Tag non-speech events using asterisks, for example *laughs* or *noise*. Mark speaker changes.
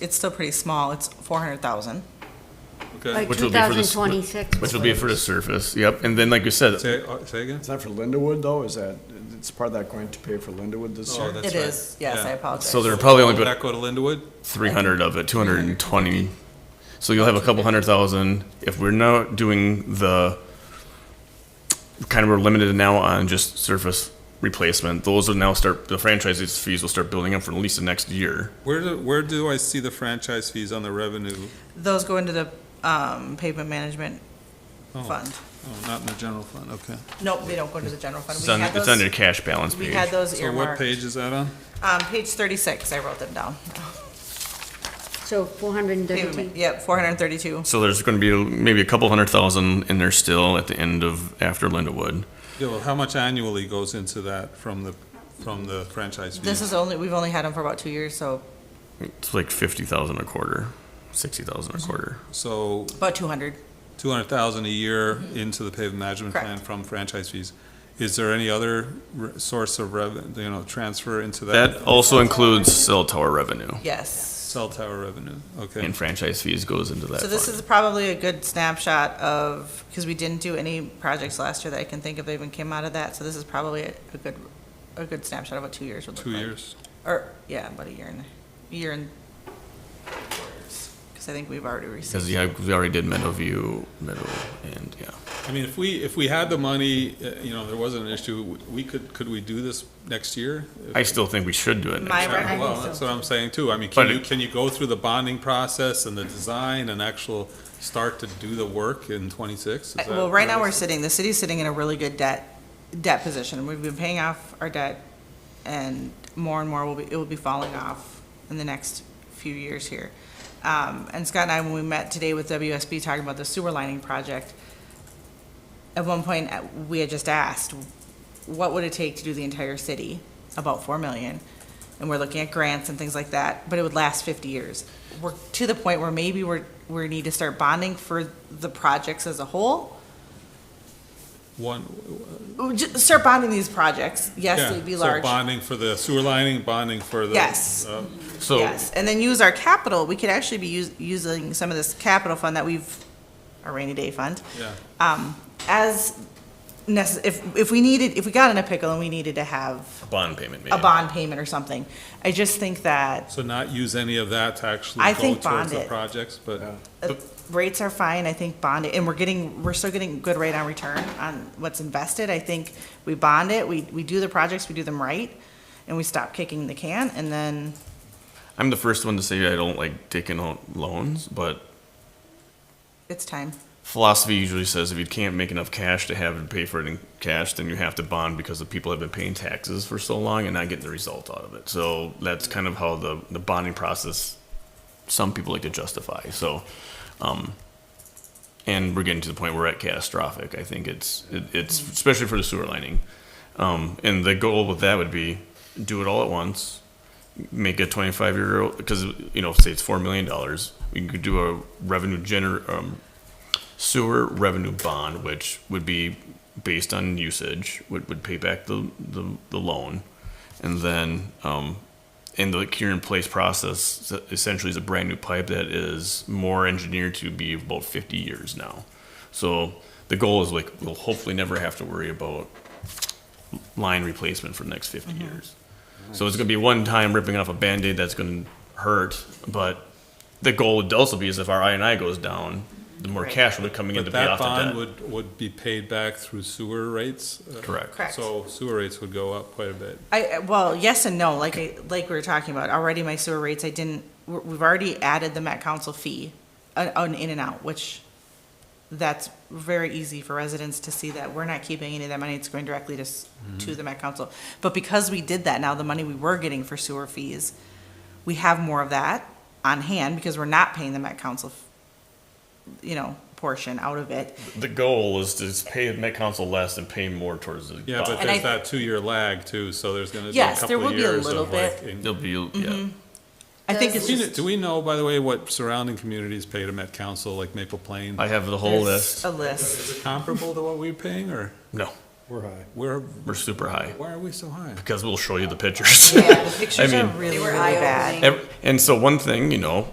Speaker 1: it's still pretty small, it's four hundred thousand.
Speaker 2: By
Speaker 3: Okay,
Speaker 2: Which will be for the s-
Speaker 4: 2026.
Speaker 2: Which will be for the surface, yep, and then like we said,
Speaker 3: say, uh, say again?
Speaker 5: Is that for Lindawood though? Is that, it's part of that grant to pay for Lindawood this
Speaker 3: Oh,
Speaker 5: year?
Speaker 3: that's
Speaker 1: It
Speaker 3: right.
Speaker 1: is, yes, I
Speaker 3: Yeah.
Speaker 1: apologize.
Speaker 2: so there are probably only
Speaker 3: Will
Speaker 2: about
Speaker 3: that go to Lindawood?
Speaker 2: three hundred of it, two hundred and twenty. So you'll have a couple hundred thousand. If we're not doing the, kind of we're limited now on just surface replacement, those will now start, the franchise fees will start building up for at least the next year.
Speaker 3: Where do, where do I see the franchise fees on the revenue?
Speaker 1: Those go into the, um, pavement management
Speaker 3: Oh.
Speaker 1: fund.
Speaker 3: Oh, not in the general fund, okay.
Speaker 1: Nope, they don't go into the general fund.
Speaker 2: It's
Speaker 1: We
Speaker 2: on,
Speaker 1: had
Speaker 2: it's
Speaker 1: those-
Speaker 2: on your cash balance
Speaker 1: We
Speaker 2: page.
Speaker 1: had those
Speaker 3: So what
Speaker 1: earmarked.
Speaker 3: page is that on?
Speaker 1: Um, page thirty-six, I wrote them down.
Speaker 4: So 432.
Speaker 1: Yep, four hundred and thirty-two.
Speaker 2: So there's gonna be maybe a couple hundred thousand in there still at the end of, after Lindawood.
Speaker 3: Yeah, well, how much annually goes into that from the, from the franchise
Speaker 1: This
Speaker 3: fees?
Speaker 1: is only, we've only had them for about two years, so
Speaker 2: It's like fifty thousand a quarter, sixty thousand a quarter.
Speaker 3: So
Speaker 1: about two hundred.
Speaker 3: two hundred thousand a year into the pavement management
Speaker 1: Correct.
Speaker 3: plan from franchise fees. Is there any other re- source of revenue, you know, transfer into that
Speaker 2: That also includes cell tower revenue
Speaker 1: Yes.
Speaker 3: cell tower revenue? Okay,
Speaker 2: and franchise fees goes into that
Speaker 1: So this
Speaker 2: fund.
Speaker 1: is probably a good snapshot of, because we didn't do any projects last year that I can think of that even came out of that, so this is probably a a good, a good snapshot of what two years would look
Speaker 3: two
Speaker 1: like.
Speaker 3: years.
Speaker 1: Or, yeah, about a year and, a year and, because I think we've already received.
Speaker 2: Because yeah, we already did Meadowview, Meadow, and yeah.
Speaker 3: I mean, if we, if we had the money, uh, you know, there wasn't an issue, w- we could, could we do this next year?
Speaker 2: I still think we should do it
Speaker 1: My
Speaker 2: next year.
Speaker 1: rec-
Speaker 4: think
Speaker 3: Well,
Speaker 4: so.
Speaker 3: that's what I'm saying too. I mean,
Speaker 2: But
Speaker 3: can you,
Speaker 2: it-
Speaker 3: can you go through the bonding process and the design and actual start to do the work in twenty-six?
Speaker 1: Uh, Well, right now, we're sitting, the city's sitting in a really good debt, debt position. We've been paying off our debt, and more and more will be, it will be falling off in the next few years here. Um, and Scott and I, when we met today with WSB talking about the sewer lining project, at one point, uh, we had just asked, what would it take to do the entire city? About four million. And we're looking at grants and things like that, but it would last fifty years. We're to the point where maybe we're, we need to start bonding for the projects as a whole.
Speaker 3: One.
Speaker 1: Ooh, ju- Start bonding these projects. Yes,
Speaker 3: yeah.
Speaker 1: they'd be
Speaker 3: So
Speaker 1: large.
Speaker 3: Bonding for the sewer lining, bonding for the.
Speaker 1: Yes.
Speaker 3: uh,
Speaker 2: So
Speaker 1: Yes, and then use our capital. We could actually be us- using some of this capital fund that we've, our rainy day fund,
Speaker 3: Yeah,
Speaker 1: um, as necess, if, if we needed, if we got in a pickle and we needed to have
Speaker 2: bond payment, maybe.
Speaker 1: a bond payment or something. I just think that
Speaker 3: so not use any of that to actually
Speaker 1: I
Speaker 3: go
Speaker 1: think
Speaker 3: towards the
Speaker 1: bond it.
Speaker 3: projects, but.
Speaker 1: uh, rates are fine. I think bond it, and we're getting, we're still getting good rate on return on what's invested. I think we bond it, we, we do the projects, we do them right, and we stop kicking the can, and then
Speaker 2: I'm the first one to say I don't like taking out loans, but
Speaker 1: it's time.
Speaker 2: philosophy usually says if you can't make enough cash to have and pay for it in cash, then you have to bond because the people have been paying taxes for so long and not getting the result out of it. So that's kind of how the, the bonding process some people like to justify. So, um, and we're getting to the point where we're at catastrophic. I think it's it, it's especially for the sewer lining, um, and the goal with that would be do it all at once, make a 25 year old because you know say it's four million dollars, we could do a revenue gener um, sewer revenue bond, which would be based on usage, would, would pay back the, the, the loan. And then, um, in the cure in place process essentially is a brand new pipe that is more engineered to be about 50 years now. So the goal is like, we'll hopefully never have to worry about line replacement for the next 50
Speaker 1: Mm-hmm.
Speaker 2: years. So it's going to be one time ripping off a band-aid that's going to hurt, but the goal would also be is if our I and I goes down, the more
Speaker 1: Right.
Speaker 2: cash will be coming in to
Speaker 3: But
Speaker 2: pay
Speaker 3: that
Speaker 2: off the
Speaker 3: bond
Speaker 2: debt.
Speaker 3: would, would be paid back through sewer rates. uh,
Speaker 2: Correct.
Speaker 1: Correct.
Speaker 3: So sewer rates would go up quite a bit.
Speaker 1: I, I- well, yes and no, like, I- like we were talking about, already my sewer rates, I didn't, we're- we've already added the Met Council fee on, on in and out, which that's very easy for residents to see that we're not keeping any of that money, it's going directly to, s-
Speaker 2: Mm-hmm.
Speaker 1: to the Met Council. But because we did that, now the money we were getting for sewer fees, we have more of that on hand because we're not paying the Met Council, you know, portion out of it.
Speaker 2: The goal is to just pay the Met Council less and pay more towards the
Speaker 3: Yeah, but
Speaker 2: bond.
Speaker 1: And I-
Speaker 3: there's that two-year lag too, so there's gonna be a
Speaker 1: Yes, there
Speaker 3: couple
Speaker 1: will
Speaker 3: of
Speaker 1: be a
Speaker 3: years
Speaker 1: little
Speaker 3: of like. in-
Speaker 2: There'll be, yeah.
Speaker 1: Mm-hmm. I think it's
Speaker 3: Do we-
Speaker 1: just
Speaker 3: Do we know, by the way, what surrounding communities pay to Met Council, like Maple Plain?
Speaker 2: I have the whole
Speaker 1: it's
Speaker 2: list.
Speaker 1: a list.
Speaker 3: Comparable to what we're paying, or?
Speaker 2: No.
Speaker 6: We're high.
Speaker 3: Where,
Speaker 2: We're super high
Speaker 3: why are we so high?
Speaker 2: because we'll show you the pictures. *laughs*
Speaker 1: Yeah, the pictures are
Speaker 2: mean-
Speaker 1: really, really bad.
Speaker 2: Ev- And so one thing, you know,